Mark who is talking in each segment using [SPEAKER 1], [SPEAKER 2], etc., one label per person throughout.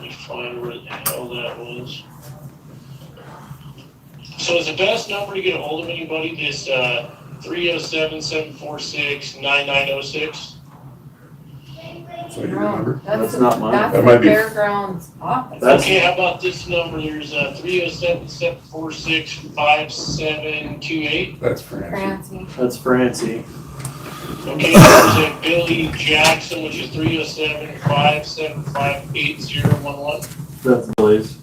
[SPEAKER 1] me find where the hell that was. So is the best number to get a hold of anybody this, uh, three oh seven, seven four six, nine nine oh six?
[SPEAKER 2] So you remember?
[SPEAKER 3] That's not mine.
[SPEAKER 2] That
[SPEAKER 3] That's
[SPEAKER 2] might
[SPEAKER 3] the
[SPEAKER 2] be-
[SPEAKER 3] fairgrounds office.
[SPEAKER 4] That's-
[SPEAKER 1] Okay, how about this number, here's, uh, three oh seven, seven four six, five seven two eight?
[SPEAKER 2] That's Francie.
[SPEAKER 3] Francie.
[SPEAKER 4] That's Francie.
[SPEAKER 1] Okay, there's a Billy Jackson, which is three oh seven, five seven five eight zero one one.
[SPEAKER 4] That's Billy's.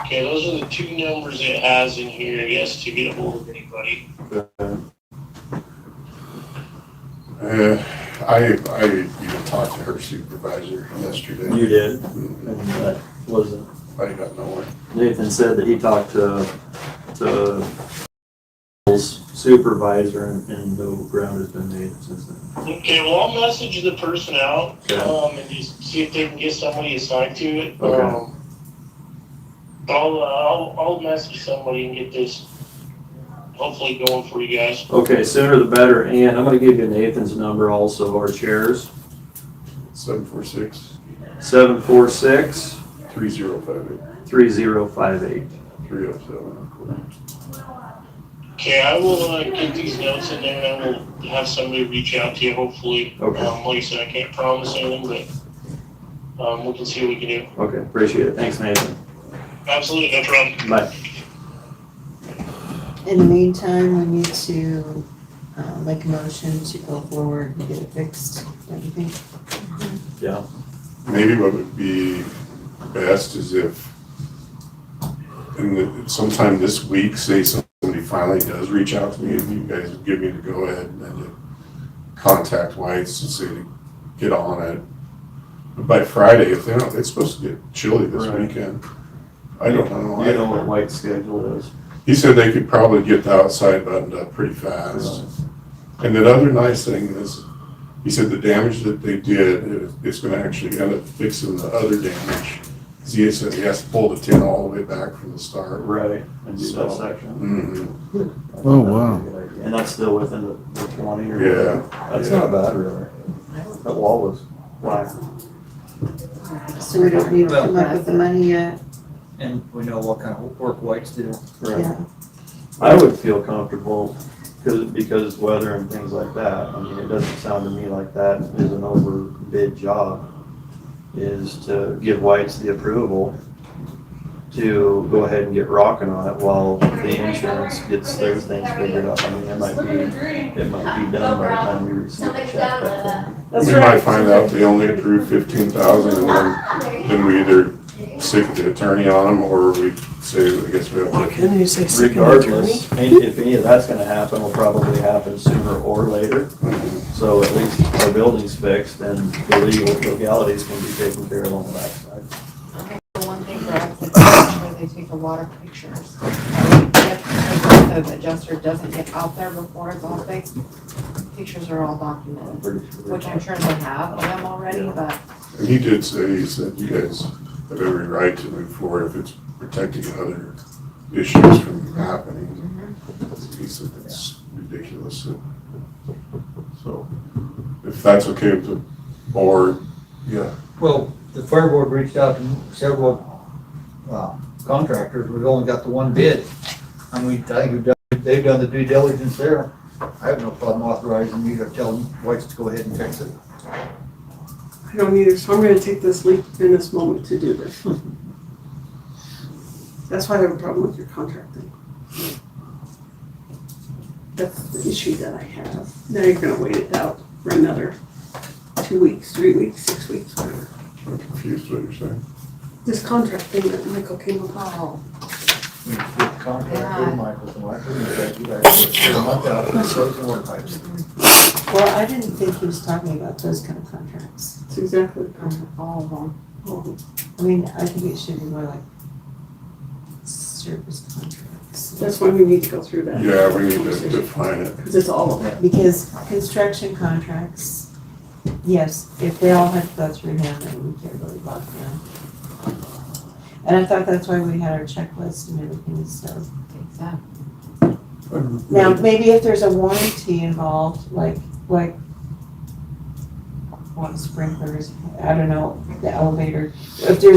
[SPEAKER 1] Okay, those are the two numbers it has in here, yes, to get a hold of anybody.
[SPEAKER 4] Uh,
[SPEAKER 2] Uh, I, I even talked to her supervisor yesterday.
[SPEAKER 4] You did,
[SPEAKER 2] Mm,
[SPEAKER 4] and that wasn't.
[SPEAKER 2] I got nowhere.
[SPEAKER 4] Nathan said that he talked to, to Bill's supervisor and, and no ground has been made since then.
[SPEAKER 1] Okay, well, I'll message the person out,
[SPEAKER 4] Yeah.
[SPEAKER 1] um, and just see if they can get somebody assigned to it.
[SPEAKER 4] Okay.
[SPEAKER 1] Um, I'll, uh, I'll, I'll message somebody and get this hopefully going for you guys.
[SPEAKER 4] Okay, sooner the better, and I'm gonna give you Nathan's number also, our chairs,
[SPEAKER 2] Seven four six,
[SPEAKER 4] seven four six
[SPEAKER 2] three zero five eight,
[SPEAKER 4] three zero five eight.
[SPEAKER 2] three oh seven.
[SPEAKER 1] Okay, I will, uh, get these notes in there, and I will have somebody reach out to you, hopefully.
[SPEAKER 4] Okay.
[SPEAKER 1] Um, like I said, I can't promise anything, but, um, we can see what we can do.
[SPEAKER 4] Okay, appreciate it, thanks Nathan,
[SPEAKER 1] Absolutely, no problem.
[SPEAKER 4] bye.
[SPEAKER 5] In the meantime, we need to, uh, make a motion to go forward and get it fixed, don't you think?
[SPEAKER 4] Yeah,
[SPEAKER 2] Maybe what would be best is if, in the, sometime this week, say somebody finally does reach out to me and you guys give me the go-ahead and then to contact White's and say to get on it. But By Friday, if they don't, it's supposed to get chilly this
[SPEAKER 4] Right.
[SPEAKER 2] weekend. I don't know.
[SPEAKER 4] you know what White's schedule is.
[SPEAKER 2] He said they could probably get the outside buttoned up pretty fast. And that other nice thing is, he said the damage that they did, it- it's gonna actually end up fixing the other damage. 'Cause He said he has to pull the tin all the way back from the start.
[SPEAKER 4] Right, and do that
[SPEAKER 2] So-
[SPEAKER 4] section.
[SPEAKER 2] Mhm.
[SPEAKER 6] Oh, wow.
[SPEAKER 4] And that's still within the the twenty or?
[SPEAKER 2] Yeah.
[SPEAKER 4] That's not bad, really. That wall was black.
[SPEAKER 5] So we don't need to come up with the money yet,
[SPEAKER 7] And we know what kind of work whites do.
[SPEAKER 5] yeah.
[SPEAKER 4] I would feel comfortable, because, because weather and things like that, I mean, it doesn't sound to me like that is an overbid job, is to give White's the approval to go ahead and get rocking on it while the insurance gets their things figured out. I mean, it might be, it might be done by the time we receive the check. but-
[SPEAKER 2] We might find out they only approved fifteen thousand and then, then we either stick the attorney on them or we say, I guess we have to.
[SPEAKER 8] Can you say second attorney?
[SPEAKER 4] Regardless, any- if any of that's gonna happen, will probably happen sooner or later. So at least our building's fixed and the legal legalities can be taken care of on the backside.
[SPEAKER 3] The one thing for us is to make sure they take a lot of pictures. If the adjuster doesn't get out there before it's all fixed, pictures are all
[SPEAKER 4] I'm
[SPEAKER 3] documented,
[SPEAKER 4] pretty sure.
[SPEAKER 3] which I'm sure they have of them already, but
[SPEAKER 2] And he did say, he said, you guys have every right to move forward if it's protecting other issues from happening. He said, that's ridiculous. So- So, if that's okay with the board, yeah,
[SPEAKER 7] Well, the fire board reached out to several uh, contractors, we've only got the one bid. I mean, I think we've done, they've done the due diligence there. I have no problem authorizing you to tell them whites to go ahead and fix it.
[SPEAKER 8] I don't either, so I'm gonna take this leap in this moment to do this. That's why I have a problem with your contract thing. That's the issue that I have. Now you're gonna wait it out for another two weeks, three weeks, six weeks, whatever.
[SPEAKER 2] I'm confused what you're saying.
[SPEAKER 8] This contract thing that Michael came up with.
[SPEAKER 3] oh,
[SPEAKER 7] We should get the
[SPEAKER 3] Yeah.
[SPEAKER 7] contractor, Michael's and Michael, and say, you guys, get a month out, and so it's water pipes.
[SPEAKER 5] Well, I didn't think he was talking about those kind of contracts.
[SPEAKER 8] That's exactly the contract.
[SPEAKER 3] um, all of them.
[SPEAKER 8] Oh,
[SPEAKER 5] I mean, I think it should be more like service contracts.
[SPEAKER 8] That's why we need to go through that.
[SPEAKER 2] Yeah, we need to define it.
[SPEAKER 8] Because it's all of it.
[SPEAKER 5] Because construction contracts, yes, if they all had to go through him, then we can't really block them. And I thought that's why we had our checklist and everything, so.
[SPEAKER 3] Exactly.
[SPEAKER 5] Now, maybe if there's a warranty involved, like, like, what sprinklers, I don't know, the elevator, if there's